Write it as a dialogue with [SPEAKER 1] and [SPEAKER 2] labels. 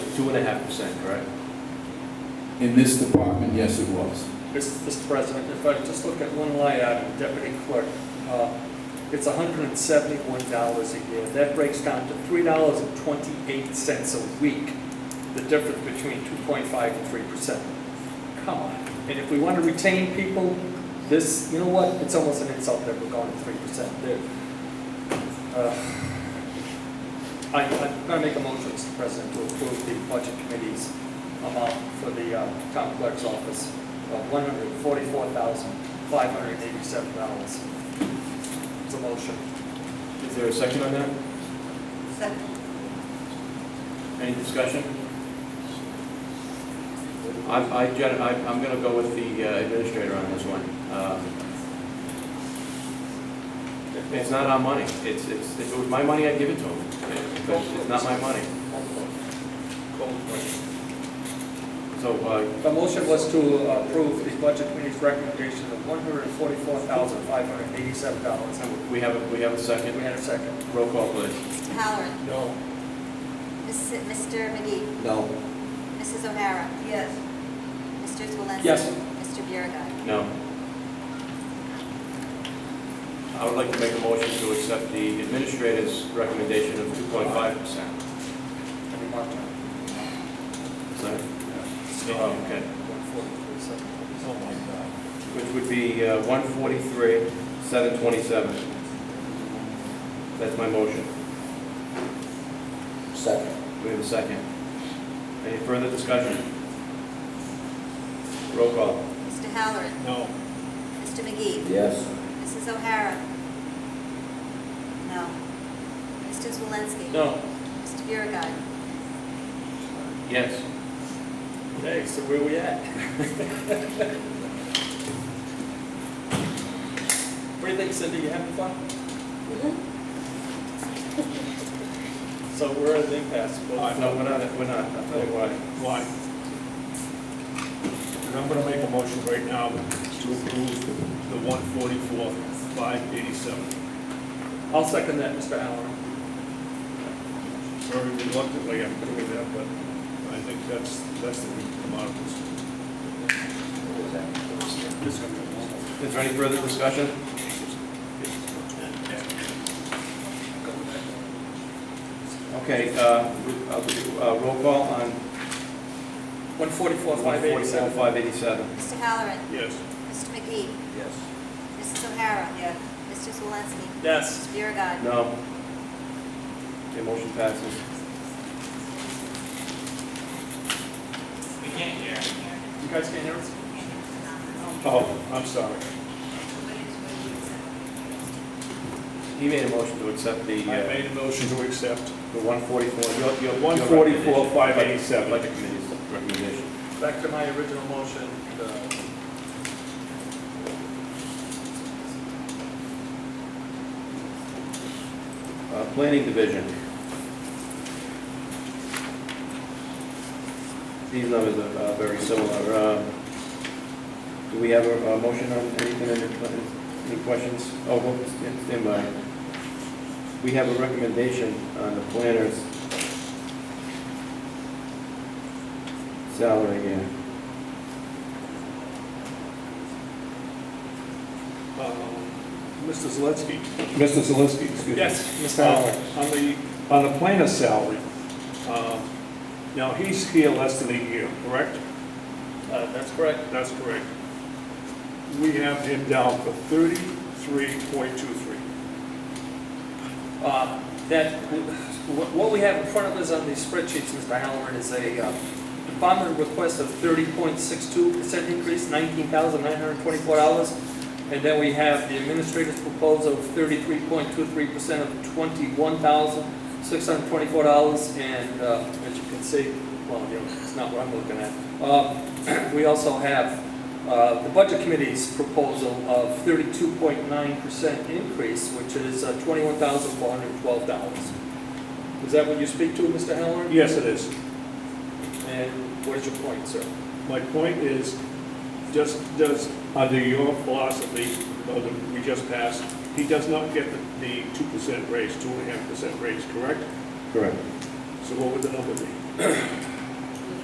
[SPEAKER 1] two and a half percent, correct?
[SPEAKER 2] In this department, yes, it was.
[SPEAKER 3] Mr. President, if I just look at one line item, deputy clerk, uh, it's $171 a year. That breaks down to $3.28 a week, the difference between 2.5 and 3%. Come on. And if we want to retain people, this, you know what, it's almost an insult that we're going to 3% there. Uh, I, I'm going to make a motion, Mr. President, to approve the budget committee's amount for the uh, town clerk's office of $144,587. It's a motion.
[SPEAKER 1] Is there a second on that?
[SPEAKER 4] Second.
[SPEAKER 1] Any discussion? I'm, I, gen- I- I'm gonna go with the uh, administrator on this one. Um, It's not our money, it's, it's, if it was my money, I'd give it to him, But it's not my money. So, uh,
[SPEAKER 3] The motion was to approve the budget committee's recommendation of $144,587. And
[SPEAKER 1] we have, a we have a
[SPEAKER 3] We
[SPEAKER 1] second,
[SPEAKER 3] had a second.
[SPEAKER 1] roll call please.
[SPEAKER 4] Mr. Halloran.
[SPEAKER 3] No.
[SPEAKER 4] Miss- Mr. McGee.
[SPEAKER 2] No.
[SPEAKER 4] Mrs. O'Hara. Yes. Mr. Swolenski.
[SPEAKER 3] Yes.
[SPEAKER 4] Mr. Biragad.
[SPEAKER 1] No. I would like to make a motion to accept the administrator's recommendation of two point five percent.
[SPEAKER 3] Any more time?
[SPEAKER 1] Okay.
[SPEAKER 3] Oh, my God.
[SPEAKER 1] which would be uh, 143, 727. That's my motion.
[SPEAKER 2] Second.
[SPEAKER 1] We have a second. Any further discussion? Roll call.
[SPEAKER 4] Mr. Halloran.
[SPEAKER 1] No.
[SPEAKER 4] Mr. McGee.
[SPEAKER 2] Yes.
[SPEAKER 4] Mrs. O'Hara. No. Mr. Swolenski.
[SPEAKER 3] No.
[SPEAKER 4] Mr. Biragad.
[SPEAKER 1] Yes.
[SPEAKER 3] Okay, so where we at? What do you think, Cindy, you having fun? So we're at an impasse.
[SPEAKER 1] Uh, No, we're not, we're not. I'll tell you why.
[SPEAKER 5] Why? And I'm gonna make a motion right now to approve the one forty-four, five eighty-seven.
[SPEAKER 3] I'll second that, Mr. Allen.
[SPEAKER 5] Very reluctantly, I'm doing that, but I think that's, that's the way to come out of this.
[SPEAKER 1] Is there any further discussion? Okay, uh, we- I'll do, uh, roll call on
[SPEAKER 3] 144,
[SPEAKER 1] 144,
[SPEAKER 3] 587.
[SPEAKER 1] 587.
[SPEAKER 4] Mr. Halloran.
[SPEAKER 5] Yes,
[SPEAKER 4] Mr. McGee.
[SPEAKER 1] Yes.
[SPEAKER 4] Mrs. O'Hara. Yes. Mr. Swolenski.
[SPEAKER 3] Yes.
[SPEAKER 4] Mr. Biragad.
[SPEAKER 1] No. Okay, motion passes.
[SPEAKER 6] We can't hear.
[SPEAKER 3] You guys can hear us?
[SPEAKER 1] Oh,
[SPEAKER 5] I'm sorry.
[SPEAKER 1] he made a motion to accept the,
[SPEAKER 5] I
[SPEAKER 1] uh,
[SPEAKER 5] made a motion to accept
[SPEAKER 1] the 144, your, your... your recommendation.
[SPEAKER 5] 144, 587.
[SPEAKER 1] Like the committee's recommendation.
[SPEAKER 3] Back to my original motion. uh,
[SPEAKER 1] Uh, Planning Division. These numbers are uh, very similar. Uh, Do we have a a motion on anything, any- any questions? Oh, well, stand- stand by. We have a recommendation on the planner's salary again.
[SPEAKER 5] uh, Mr. Zelinski.
[SPEAKER 2] Mr. Zalinski, excuse me.
[SPEAKER 5] Yes,
[SPEAKER 2] Mr.
[SPEAKER 5] Uh,
[SPEAKER 2] Allen.
[SPEAKER 5] On the, on the planner's salary, uh, now he's here less than a year, correct?
[SPEAKER 3] uh, That's correct.
[SPEAKER 5] That's correct. We have him down for thirty-three point two-three.
[SPEAKER 3] Uh, That, wh- what we have in front of us on these spreadsheets, Mr. Halloran, is a uh, department request of thirty point six two percent increase, nineteen thousand nine hundred twenty-four dollars. And then we have the administrator's proposal of thirty-three point two three percent of twenty-one thousand six hundred twenty-four dollars. And uh, as you can see, well, you know, it's not what I'm looking at. Uh, We also have uh, the Budget Committee's proposal of 32.9% increase, which is uh, $21,412. Is that what you speak to, Mr. Halloran?
[SPEAKER 5] Yes, it is.
[SPEAKER 3] And what is your point, sir?
[SPEAKER 5] My point is, just, does, under your philosophy, uh, that we just passed, he does not get the- the two percent raise, two and a half percent raise, correct?
[SPEAKER 1] Correct.
[SPEAKER 5] So what would the number be?